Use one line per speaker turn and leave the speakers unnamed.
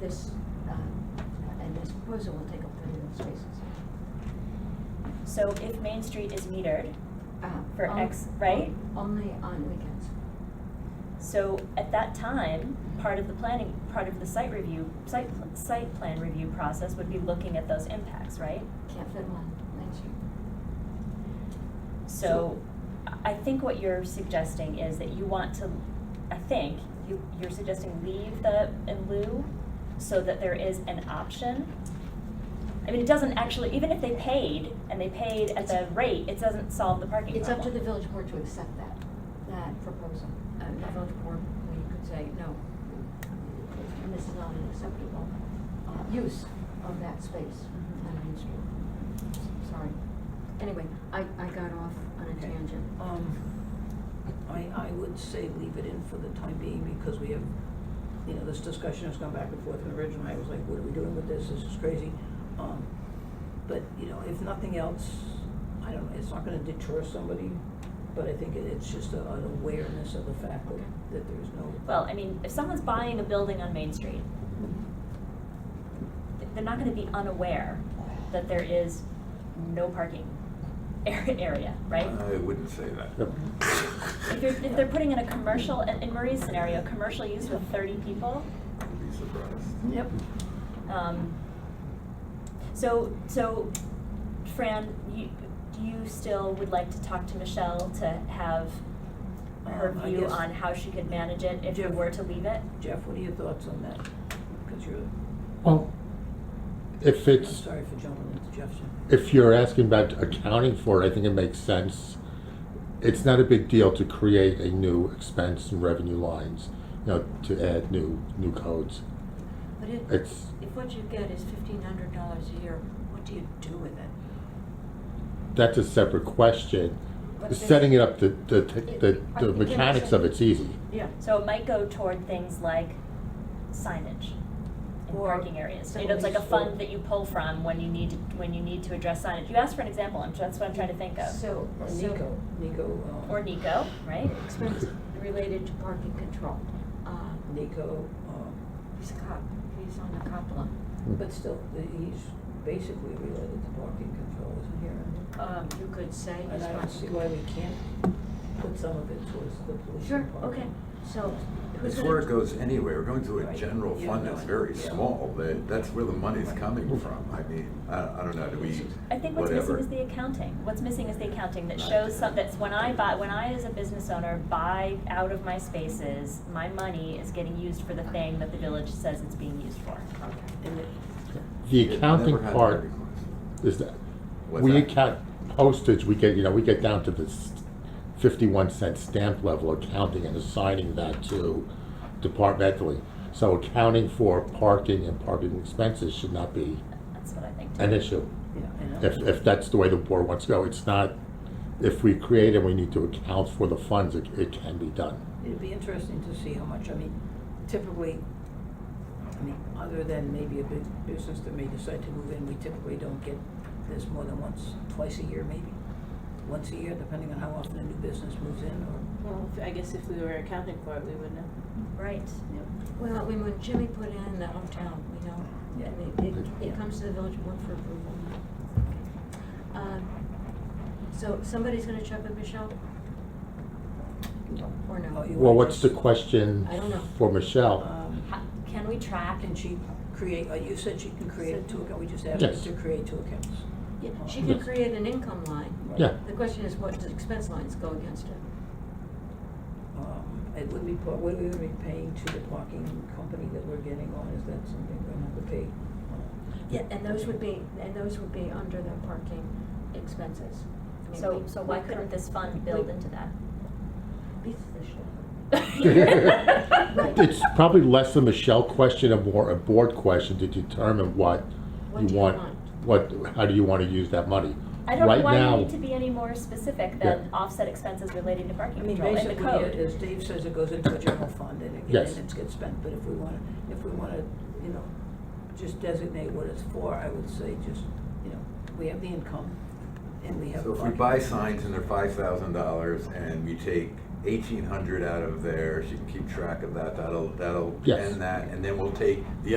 this, uh, and this proposal will take up thirty of those spaces.
So if Main Street is metered
Uh,
for
on-
X, right?
Only on weekends.
So at that time, part of the planning, part of the site review, site, pl- site plan review process would be looking at those impacts, right?
Can't fit one, Main Street.
So I- I think what you're suggesting is that you want to, I think, you, you're suggesting leave the in lieu so that there is an option. I mean, it doesn't actually, even if they paid and they paid at the rate, it doesn't solve the parking
It's up to
problem.
the village board to accept that, that proposal. Uh, The village board, we could say, no, and this is not an acceptable uh, use of that space
Mhm.
on Main Street. Sorry. Anyway, I, I got off on a
Okay.
tangent.
Um, I, I would say leave it in for the time being because we have, you know, this discussion has gone back and forth and originally I was like, what are we doing with this? This is crazy. Um, but, you know, if nothing else, I don't know, it's not gonna deter somebody, but I think it, it's just a- an awareness of the fact that, that there's no.
Well, I mean, if someone's buying a building on Main Street, th- they're not gonna be unaware that there is no parking ar- area, right?
I wouldn't say that.
If you're, if they're putting in a commercial, in in Marie's scenario, commercial use with thirty people,
I'd be surprised.
Yep.
um, so, so, Fran, you, you still would like to talk to Michelle to have her
Um, I
view
guess-
on how she could manage it if you
Jeff-
were to leave it?
Jeff, what are your thoughts on that? Because you're,
Well, if
I'm
it's,
sorry for jumping into Jeff's.
if you're asking about accounting for it, I think it makes sense. It's not a big deal to create a new expense and revenue lines, you know, to add new, new codes.
But it,
It's,
if what you get is fifteen hundred dollars a year, what do you do with it?
that's a separate question.
But there's-
Setting it up, the, the, the,
I
the
think it
mechanics
also-
of it's easy.
Yeah.
So it might go toward things like signage in
Or
parking areas. You know, it's like a
facilities.
fund that you pull from when you need, to when you need to address signage. You asked for an example, I'm, that's what I'm trying to think of.
So,
Or
so
Nico, Nico, um.
Or Nico, right?
expense related to parking control. Uh,
Nico, um,
He's a cop, he's on the cop line.
But still, the- he's basically related to parking control, isn't he?
Um, you could say
And
he's
I don't see
parking.
why we can't put some of it towards the
Sure,
pollution part.
okay, so who's
It's
gonna?
where it goes anyway, we're going to a
Right.
general
Yeah,
fund
no,
that's
I know.
very
Yeah.
small, that, that's where the money's coming from, I mean, I, I don't know, do we,
I think what's missing
whatever.
is the accounting. What's missing is the accounting that
Right.
shows some, that's when I buy, when I as a business owner buy out of my spaces, my money is getting used for the thing that the village says it's being used for.
And it-
The
It
accounting
never had
part
thirty coins.
is that,
What's
we
that?
account postage, we get, you know, we get down to this fifty-one cent stamp level accounting and assigning that to departmentally. So accounting for parking and parking expenses should not be
That's what I think.
an issue.
yeah, I know.
If, if that's the way the board wants to go, it's not, if we create and we need to account for the funds, it, it can be done.
It'd be interesting to see how much, I mean, typically, I mean, other than maybe a big business that may decide to move in, we typically don't get this more than once, twice a year maybe. Once a year, depending on how often a new business moves in or,
Well, if- I guess if we were accounting for it, we would know.
Right.
Well, when when Jimmy put in the hometown, we know,
Yeah.
and it, it, it
Yeah.
comes to the village board for approval. Um, So somebody's gonna check with Michelle? Or
Oh,
no?
you-
Well, what's the question
I don't know.
for Michelle?
um,
How, can we track
Can she create, uh, you said she can create two accounts, we just asked her
Yes.
to create two accounts.
Yeah, She can
Yes.
create an income line,
Right.
Yeah,
the question is what does expense lines go against it?
Um, It would be, pa- what are we gonna be paying to the parking company that we're getting on, is that something we're gonna have to pay?
Yeah, and those would be, and those would be under the parking expenses. I mean,
So,
we-
so why
we
couldn't
cur-
this fund build
we-
into that?
Beats the shit out of it. Uh,
it's probably less a Michelle question and more a board question to determine what
What
you
do you
want,
want?
what, how do you want to use that money?
I don't know
Right
why
now-
you need to be any more specific than
Yeah.
offset expenses relating to
I
parking
mean,
control in the
Um, basically,
code.
it- as Dave says, it goes into a general fund and it
Yes.
gets, and it gets spent, but if we wanna, if we wanna, you know, just designate what it's for, I would say just, you know, we have the income and we have.
So if we
parking.
buy signs and they're five thousand dollars and we take eighteen hundred out of there, she can keep track of that, that'll, that'll
Yes.
end that, and then we'll take the